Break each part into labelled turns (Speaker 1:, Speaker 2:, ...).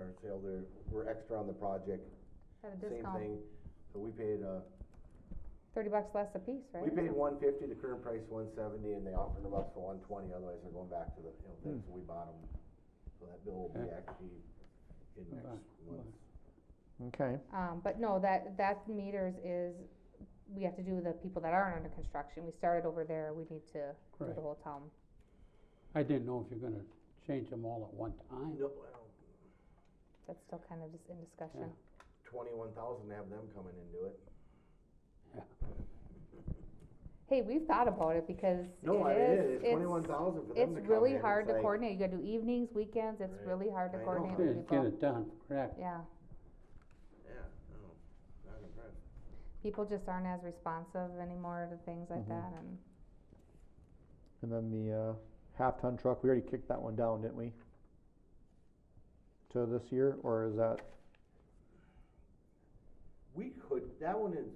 Speaker 1: yard sale, there, we're extra on the project,
Speaker 2: Have a
Speaker 1: same
Speaker 2: discount,
Speaker 1: thing. So we paid, uh,
Speaker 2: thirty bucks less a piece, right?
Speaker 1: we paid one fifty, the current price one seventy, and they offered them up for one twenty, otherwise they're going back to the, you know, things we bought them. So that bill will be
Speaker 3: Okay.
Speaker 1: actually in
Speaker 3: Next
Speaker 1: next month.
Speaker 4: Okay,
Speaker 2: Um, but no, that, that meters is, we have to do the people that aren't under construction, we started over there, we need to do
Speaker 3: Right.
Speaker 2: the whole town.
Speaker 3: I didn't know if you're gonna change them all at one time.
Speaker 1: No, well,
Speaker 2: That's still kind of just in discussion.
Speaker 1: twenty-one thousand, to have them coming into it.
Speaker 2: Hey, we've thought about it because
Speaker 1: No, I mean, it
Speaker 2: it
Speaker 1: is,
Speaker 2: is,
Speaker 1: twenty-one
Speaker 2: it's,
Speaker 1: thousand for them to come in.
Speaker 2: it's really hard to
Speaker 1: like-
Speaker 2: coordinate, you gotta do evenings, weekends, it's
Speaker 1: Right.
Speaker 2: really hard to
Speaker 1: I know.
Speaker 2: coordinate
Speaker 3: Yeah,
Speaker 2: with
Speaker 3: you
Speaker 2: people.
Speaker 3: Get it done, correct.
Speaker 2: Yeah,
Speaker 1: Yeah, no, not impressed.
Speaker 2: people just aren't as responsive anymore to things like
Speaker 4: Mhm.
Speaker 1: Mm-hmm.
Speaker 2: that and,
Speaker 4: and then the, uh, half-ton truck, we already kicked that one down, didn't we? To this year, or is that,
Speaker 1: We could, that one is,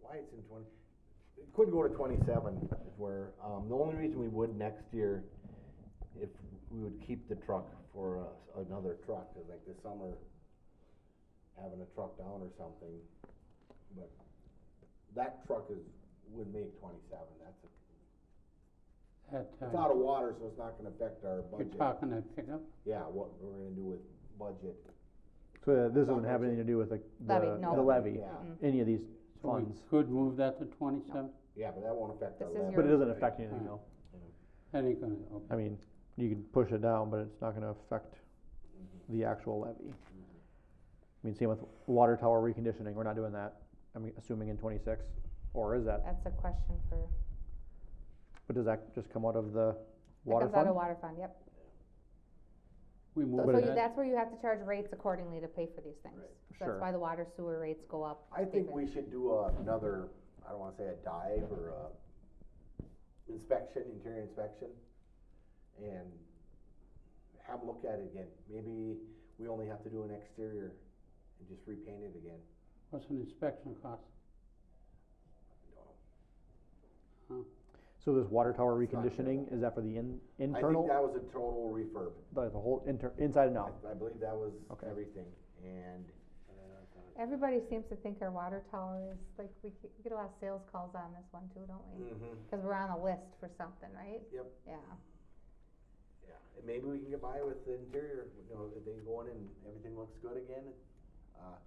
Speaker 1: why it's in twenty, it could go to twenty-seven if we're, um, the only reason we would next year, if we would keep the truck for uh, another truck, cause like this summer, having a truck down or something, but that truck is, would make twenty-seven, that's, a-
Speaker 3: That,
Speaker 1: it's
Speaker 3: uh,
Speaker 1: out of water, so it's not gonna affect our
Speaker 3: you're
Speaker 1: budget.
Speaker 3: talking that pickup,
Speaker 1: Yeah, what we're gonna do with budget.
Speaker 4: so this doesn't have anything to do with the,
Speaker 2: Levy,
Speaker 4: the
Speaker 2: no.
Speaker 4: the levy,
Speaker 1: Yeah,
Speaker 4: any of these
Speaker 3: so we
Speaker 4: funds?
Speaker 3: could move that to twenty-seven?
Speaker 1: yeah, but that won't affect our
Speaker 2: This is
Speaker 1: levy.
Speaker 4: But it doesn't affect anything
Speaker 3: Right.
Speaker 4: though,
Speaker 3: That ain't gonna, okay.
Speaker 4: I mean, you can push it down, but it's not gonna affect the actual levy. I mean, same with water tower reconditioning, we're not doing that, I'm assuming in twenty-six, or is that,
Speaker 2: that's a question for,
Speaker 4: but does that just come out of the
Speaker 2: that
Speaker 4: water
Speaker 2: comes out
Speaker 4: fund?
Speaker 2: of water fund, yep.
Speaker 3: we move
Speaker 2: So
Speaker 3: that.
Speaker 2: you, that's where you have to charge rates accordingly to pay for these things.
Speaker 1: Right.
Speaker 2: So That's
Speaker 4: Sure.
Speaker 2: why the water sewer rates go up.
Speaker 1: I
Speaker 2: to pay
Speaker 1: think
Speaker 2: for
Speaker 1: we
Speaker 2: that.
Speaker 1: should do a- another, I don't wanna say a dive or a inspection, interior inspection, and have a look at it again. Maybe we only have to do an exterior and just repaint it again,
Speaker 3: What's an inspection cost?
Speaker 1: I don't know.
Speaker 4: So this water tower
Speaker 1: It's not good.
Speaker 4: reconditioning, is that for the in,
Speaker 1: I think
Speaker 4: internal,
Speaker 1: that was a total refurb.
Speaker 4: the, the whole inter, inside and out?
Speaker 1: I, I believe that was
Speaker 4: Okay.
Speaker 1: everything, and
Speaker 2: Everybody seems to think our water tower is, like, we get- we get a lot of sales calls on this one too, don't we?
Speaker 1: Mhm.
Speaker 2: Cause we're on the list for something, right?
Speaker 1: Yep.
Speaker 2: Yeah,
Speaker 1: Yeah, and maybe we can get by with the interior, you know, if they go in and everything looks good again. Uh,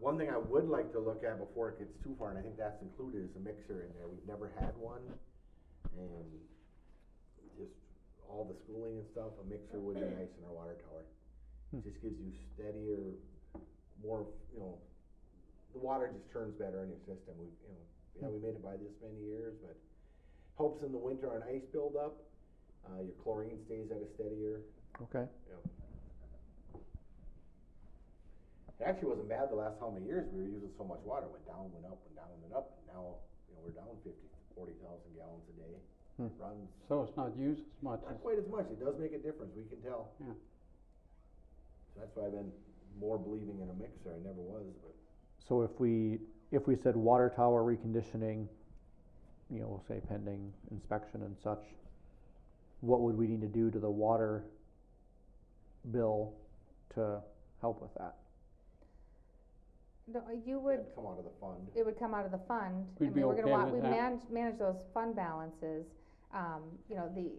Speaker 1: One thing I would like to look at before it gets too far, and I think that's included, is a mixer in there, we've never had one. And just all the schooling and stuff, a mixer would be nice in our water tower. It Just gives you steadier, more, you know, the water just turns better in your system, we, you know, yeah, we made it by this many years, but helps in the winter on ice buildup. Uh, your chlorine stays at a steadier.
Speaker 4: Okay,
Speaker 1: It actually wasn't bad the last how many years we were using so much water. Went down, went up, went down, went up. And now, you know, we're down 50, 40,000 gallons a day.
Speaker 4: Hmm.
Speaker 1: Runs
Speaker 3: So it's not used as much as,
Speaker 1: not quite as much. It does make a difference. We can tell.
Speaker 3: Yeah.
Speaker 1: So that's why I've been more believing in a mixer. I never was, but
Speaker 4: so if we, if we said water tower reconditioning, you know, we'll say pending inspection and such, what would we need to do to the water bill to help with that?
Speaker 2: no, uh, you
Speaker 1: it
Speaker 2: would,
Speaker 1: had to come out of the fund.
Speaker 2: it would come out of the fund. I
Speaker 3: We'd be
Speaker 2: mean, we're gonna
Speaker 3: okay
Speaker 2: wa-
Speaker 3: with
Speaker 2: We
Speaker 3: that.
Speaker 2: manage, manage those fund balances, um, you know, the,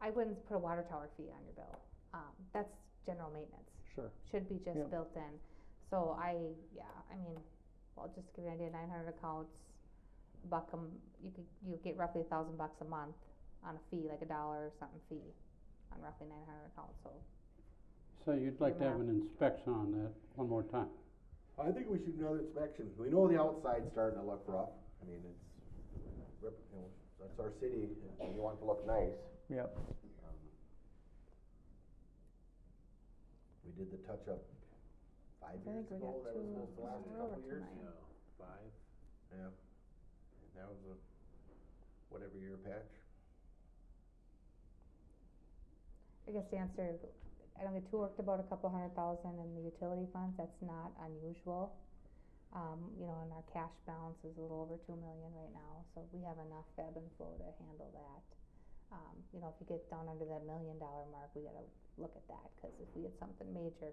Speaker 2: I wouldn't put a water tower fee on your bill, um, that's general maintenance.
Speaker 4: Sure.
Speaker 2: should be just
Speaker 4: Yeah.
Speaker 2: built in. So I, yeah, I mean, well, just to give you an idea, nine hundred accounts, buck 'em- you could, you get roughly a thousand bucks a month on a fee, like a dollar or something fee on roughly nine hundred accounts, so.
Speaker 3: so you'd like to have an inspection on that one more time?
Speaker 1: I think we should do another inspection. We know the outside's starting to look rough. I mean, it's, rep- you know, that's our city. and We want it to look nice.
Speaker 4: Yep,
Speaker 1: Um, We did the touch-up five
Speaker 2: I
Speaker 1: years
Speaker 2: think we
Speaker 1: ago,
Speaker 2: got
Speaker 1: that was
Speaker 2: two
Speaker 1: supposed to last
Speaker 2: in
Speaker 1: a
Speaker 2: a row
Speaker 1: couple
Speaker 2: or
Speaker 1: years.
Speaker 2: tonight.
Speaker 1: Five. Yeah, and that was a whatever year patch.
Speaker 2: I guess the answer, I don't get too worked about a couple hundred thousand in the utility funds, that's not unusual. Um, you know, and our cash balance is a little over two million right now, so we have enough ebb and flow to handle that. Um, you know, if you get down under that million dollar mark, we gotta look at that, cause if we get something major